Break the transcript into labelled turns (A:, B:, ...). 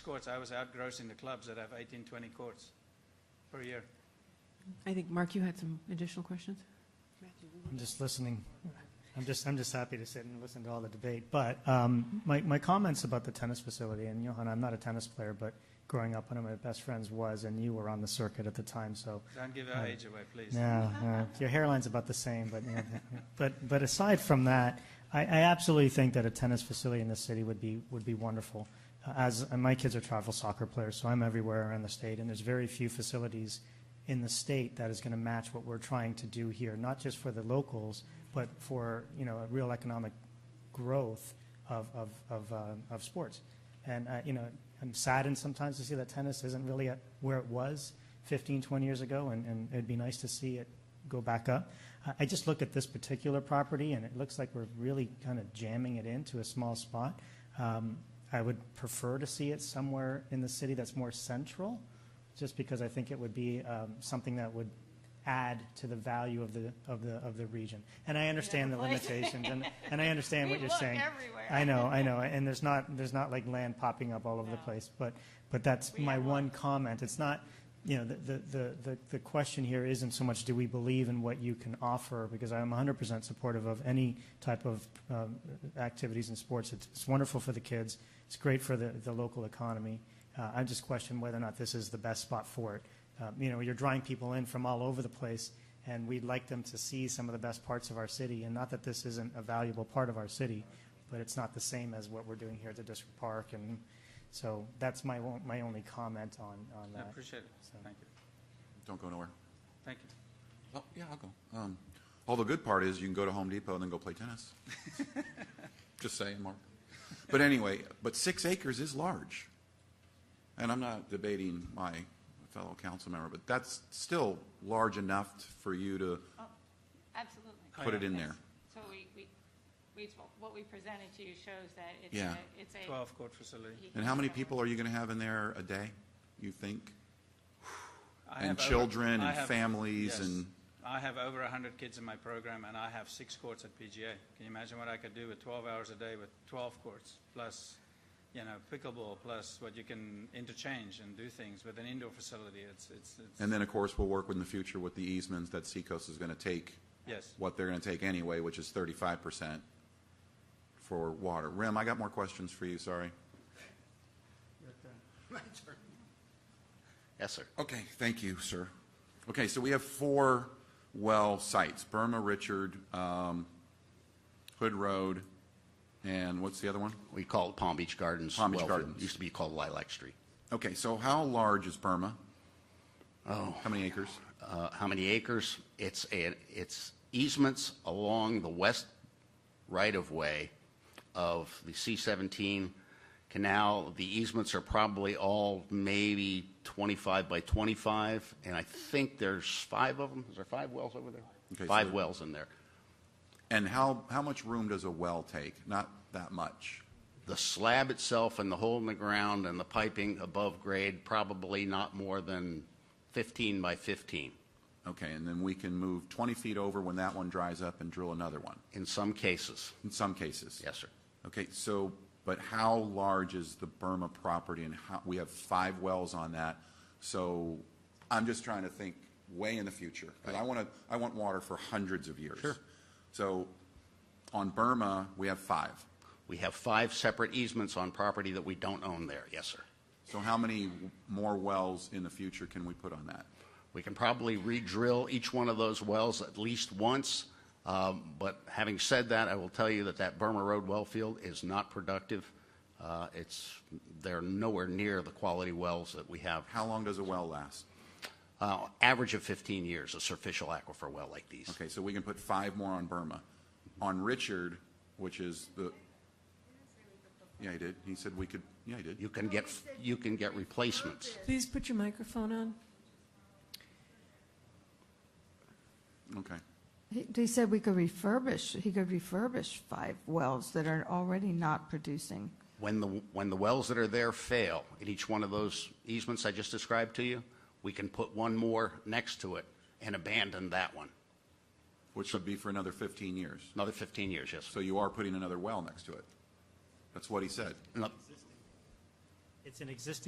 A: courts, I was outgrossing the clubs that have 18, 20 courts per year.
B: I think, Mark, you had some additional questions?
C: I'm just listening. I'm just, I'm just happy to sit and listen to all the debate. But um, my, my comments about the tennis facility, and Johan, I'm not a tennis player, but growing up, one of my best friends was, and you were on the circuit at the time, so.
A: Don't give our age away, please.
C: No, no. your hairline's about the same, but yeah. but but aside from that, I, I absolutely think that a tennis facility in the city would be would be wonderful. Uh, As and my kids are travel soccer players, so I'm everywhere around the state, and there's very few facilities in the state that is going to match what we're trying to do here, not just for the locals, but for you know a real economic growth of of of, uh, of sports. And uh, you know, I'm saddened sometimes to see that tennis isn't really at where it was 15, 20 years ago, and, and it'd be nice to see it go back up. I, I just look at this particular property, and it looks like we're really kind of jamming it into a small spot. Um, I would prefer to see it somewhere in the city that's more central, just because I think it would be um, something that would add to the value of the of the of the region. And I understand the limitations, and and I understand what
D: We
C: you're
D: look
C: saying.
D: everywhere.
C: I know, I know, and there's not there's not like land popping up all over the
D: No.
C: place, but but that's
D: We
C: my
D: have
C: one comment. It's not, you know, the, the, the, the, the question here isn't so much do we believe in what you can offer, because I'm 100% supportive of any type of um, activities in sports. It's, it's wonderful for the kids, it's great for the, the local economy. Uh, I just question whether or not this is the best spot for it. Um, you know, you're drawing people in from all over the place, and we'd like them to see some of the best parts of our city. And not that this isn't a valuable part of our city, but it's not the same as what we're doing here at the district park. And so that's my on- my only comment on on
A: I
C: that.
A: appreciate it.
C: So-
A: Thank you.
E: Don't go nowhere.
A: Thank you.
E: Oh, yeah, I'll go. Um, all the good part is you can go to Home Depot and then go play tennis. Just saying, Mark. But anyway, but six acres is large. And I'm not debating my fellow council member, but that's still large enough for you to
D: Absolutely.
A: Oh,
E: put it in there.
D: So we, we, we, what we presented to you shows that it's
E: Yeah.
D: a, it's a.
A: 12 court facility.
E: And how many people are you going to have in there a day, you think?
A: I
E: And
A: have over-
E: children
A: I
E: and
A: have-
E: families
A: yes.
E: and-
A: I have over 100 kids in my program, and I have six courts at PGA. Can you imagine what I could do with 12 hours a day with 12 courts, plus, you know, pickleball, plus what you can interchange and do things with an indoor facility? It's, it's, it's-
E: And then, of course, we'll work in the future with the easements that Seacoast is going to take
A: yes.
E: what they're going to take anyway, which is thirty-five percent for water. Rem, I got more questions for you, sorry.
F: Yes, sir.
E: Okay, thank you, sir. Okay, so we have four well sites, Burma, Richard, um, Hood Road, and what's the other one?
F: We call it Palm Beach Gardens.
E: Palm Beach
F: Wellfield.
E: Gardens.
F: Used to be called Lilac Street.
E: Okay, so how large is Burma?
F: Oh.
E: How many acres?
F: Uh, how many acres? It's a, it's easements along the west right-of-way of the C-17 canal. The easements are probably all maybe 25 by 25, and I think there's five of them. Is there five wells over
E: Okay, so
F: there? Five
E: there-
F: wells in there.
E: And how, how much room does a well take? Not that much.
F: The slab itself and the hole in the ground and the piping above grade, probably not more than 15 by 15.
E: Okay, and then we can move twenty feet over when that one dries up and drill another one,
F: In some cases,
E: in some cases.
F: yes, sir.
E: Okay, so, but how large is the Burma property and how, we have five wells on that. So I'm just trying to think way in the future. 'cause I want to, I want water for hundreds of years. Sure. So on Burma, we have five.
F: We have five separate easements on property that we don't own there, yes, sir.
E: So how many more wells in the future can we put on that?
F: We can probably re-drill each one of those wells at least once, um, but having said that, I will tell you that that Burma Road well field is not productive. Uh, It's, they're nowhere near the quality wells that we have.
E: How long does a well last?
F: Uh, Average of 15 years, a surficial aquifer well like these.
E: Okay, so we can put five more on Burma. On Richard, which is the, yeah, he did. He said we could, yeah, he did.
F: You can get, you can get replacements.
B: Please put your microphone on.
E: Okay.
G: He- They said we could refurbish, he could refurbish five wells that are already not producing.
F: When the, when the wells that are there fail in each one of those easements I just described to you, we can put one more next to it and abandon that one.
E: Which would be for another 15 years.
F: Another 15 years, yes.
E: So you are putting another well next to it. That's what he said.
F: No,
C: It's an existing